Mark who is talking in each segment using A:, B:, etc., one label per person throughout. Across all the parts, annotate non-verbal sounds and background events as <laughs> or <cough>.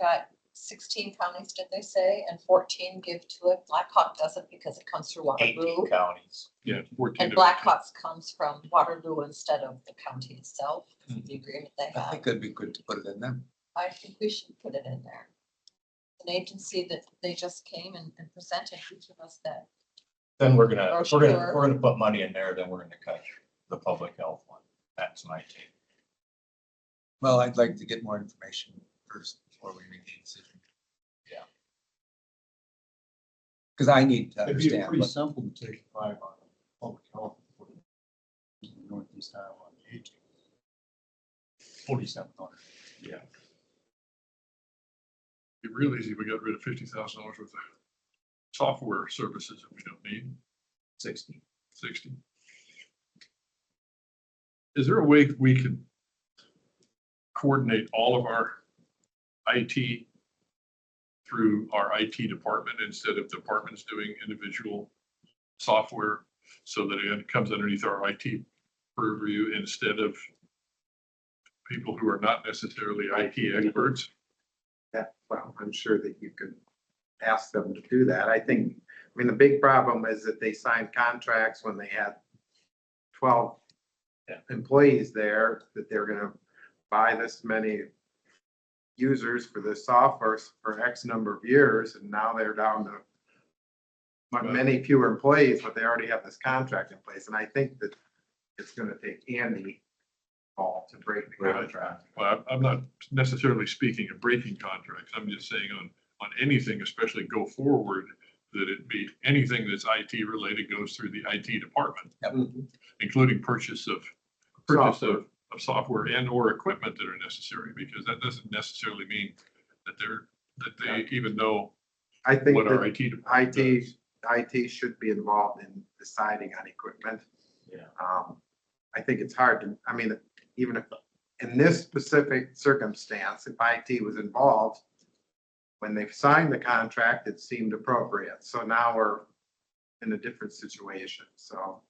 A: got sixteen counties, did they say, and fourteen give to it. Blackhawk doesn't because it comes through Waterloo.
B: eighteen counties.
C: Yeah, fourteen.
A: And Blackhawks comes from Waterloo instead of the county itself, the agreement they
D: <laughs> I
A: have.
D: think it'd be good to put it in them.
A: I think we should put it in there. An agency that they just came and and presented each of us that,
B: Then we're gonna,
A: Or
B: if we're gonna,
A: sure.
B: if we're gonna put money in there, then we're gonna cut the public health one. That's my take.
D: Well, I'd like to get more information first before we make the decision.
B: Yeah.
D: Because I need to
E: It'd be
D: understand.
E: pretty
D: what-
E: simple to take five on public health. for Northeast Iowa on the eighteen. Forty-seven hundred.
C: Be real easy, if we got rid of fifty thousand dollars worth of software services that we don't need,
B: Sixty.
C: sixty. Is there a way we could coordinate all of our IT through our IT department instead of departments doing individual software? So that it comes underneath our IT purview instead of people who are not necessarily IT experts?
F: that, well, I'm sure that you could ask them to do that. I think, I mean, the big problem is that they signed contracts when they had twelve
B: Yeah.
F: employees there, that they're gonna buy this many users for this software for X number of years, and now they're down to mu-
C: Right.
F: many fewer employees, but they already have this contract in place, and I think that it's gonna take Andy all to break the
C: Right.
F: contract.
C: Well, I'm- I'm not necessarily speaking of breaking contracts. I'm just saying on, on anything, especially go forward, that it be, anything that's IT related goes through the IT department, including purchase of, Mm-hmm. purchase of, of software and or equipment that are necessary, because that doesn't necessarily mean that they're, that they even know
F: I think
C: what
F: that
C: our IT department
F: IT,
C: does.
F: IT should be involved in deciding on equipment.
B: Yeah.
F: Um, I think it's hard to, I mean, even if, in this specific circumstance, if IT was involved, when they've signed the contract, it seemed appropriate. So now we're in a different situation, so.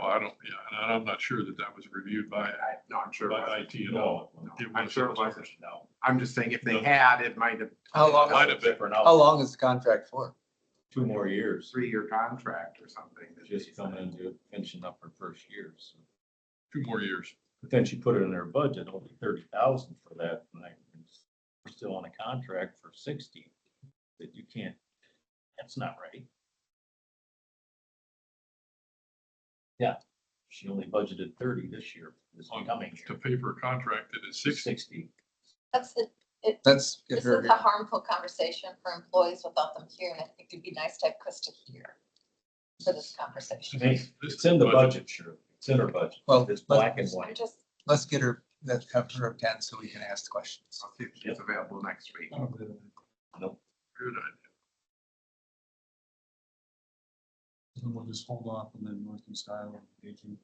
C: Well, I don't, yeah, and I'm not sure that that was reviewed by,
F: I, no, I'm sure. it
C: by
F: wasn't.
C: IT at all.
F: No,
C: It
F: I'm
C: was-
F: sure it wasn't.
B: No.
F: I'm just saying if
C: No.
F: they had, it might have
D: How long,
C: Might have been.
B: Different
D: how
B: out,
D: long is the contract for?
B: two more years,
F: three-year contract or something. that they
B: just coming
F: signed.
B: into finishing up her first year. so.
C: Two more years.
B: But then she put it in her budget, only thirty thousand for that, and I, we're still on a contract for sixty, that you can't, that's not right. Yeah, she only budgeted thirty this year, this
C: on-
B: coming
C: To
B: year,
C: pay for a contract that is sixty.
B: Oh, sixty.
A: that's the
D: Let's get
A: This
D: her
A: is
D: here.
A: a harmful conitation for employees without them here, and I think it'd be nice to have Krista here for this conversation.
B: It's it's in the budget, sure, it's in her budget,
D: Well,
B: it's black and
D: let's,
A: I'm
B: white.
A: just,
D: let's get her, let's have her attend so we can ask the questions.
B: Oh.
F: I'll see if she's available next week.
C: Good idea.
E: And we'll just hold off and then Northeast Iowa on the eighteen.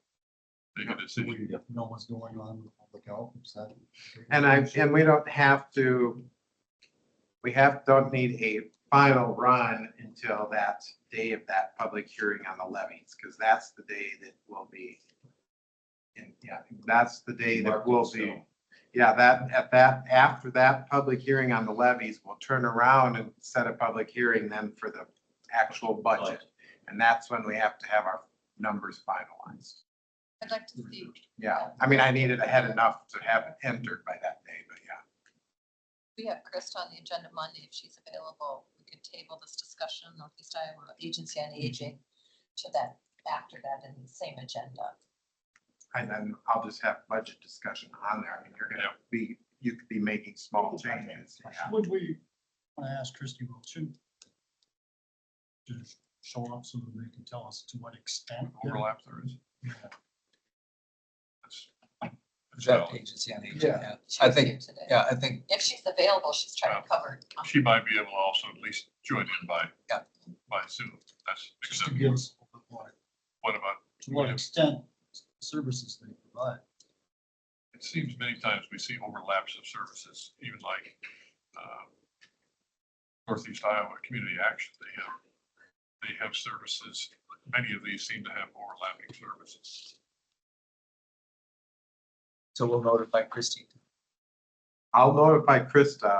C: Make a
E: So
C: decision.
E: we know what's going on with public health. is that-
F: And I, and we don't have to, we have, don't need a final run until that day of that public hearing on the levies, because that's the day that will be. And yeah, that's the day that
B: Marked
F: will
B: in
F: be,
B: stone.
F: yeah, that, at that, after that public hearing on the levies, we'll turn around and set a public hearing then for the actual budget. And that's when we have to have our numbers finalized.
A: I'd like to see,
F: Yeah, I mean, I needed, I had enough to have it entered by that day, but yeah.
A: we have Krista on the agenda Monday, if she's available, we could table this discussion, Northeast Iowa Agency on
D: Mm-hmm.
A: Aging to that, after that, in the same agenda.
F: And then I'll just have budget discussion on there. I mean, you're gonna be, you could be making small changes. yeah.
E: Would we, I asked Christie Wilchin to show up so that they can tell us to what extent. they're-
C: overlap there is. That's-
D: Is
C: that's
D: that
C: valid.
D: agency on aging?
E: Yeah.
A: She
D: I
A: was
D: think-
A: here today.
D: Yeah, Oh. I think,
A: If she's available, she's trying to cover. um,
C: She might be able to also at least join in by,
D: Yeah.
C: by Zoom. That's
E: Just to
C: acceptable.
E: give us a little bit more,
C: What about,
E: to what extent services they provide.
C: it seems many times we see overlaps of services, even like um, Northeast Iowa Community Action, they have, they have services, many of these seem to have overlapping services.
D: so we'll notify Christie.
F: I'll notify Krista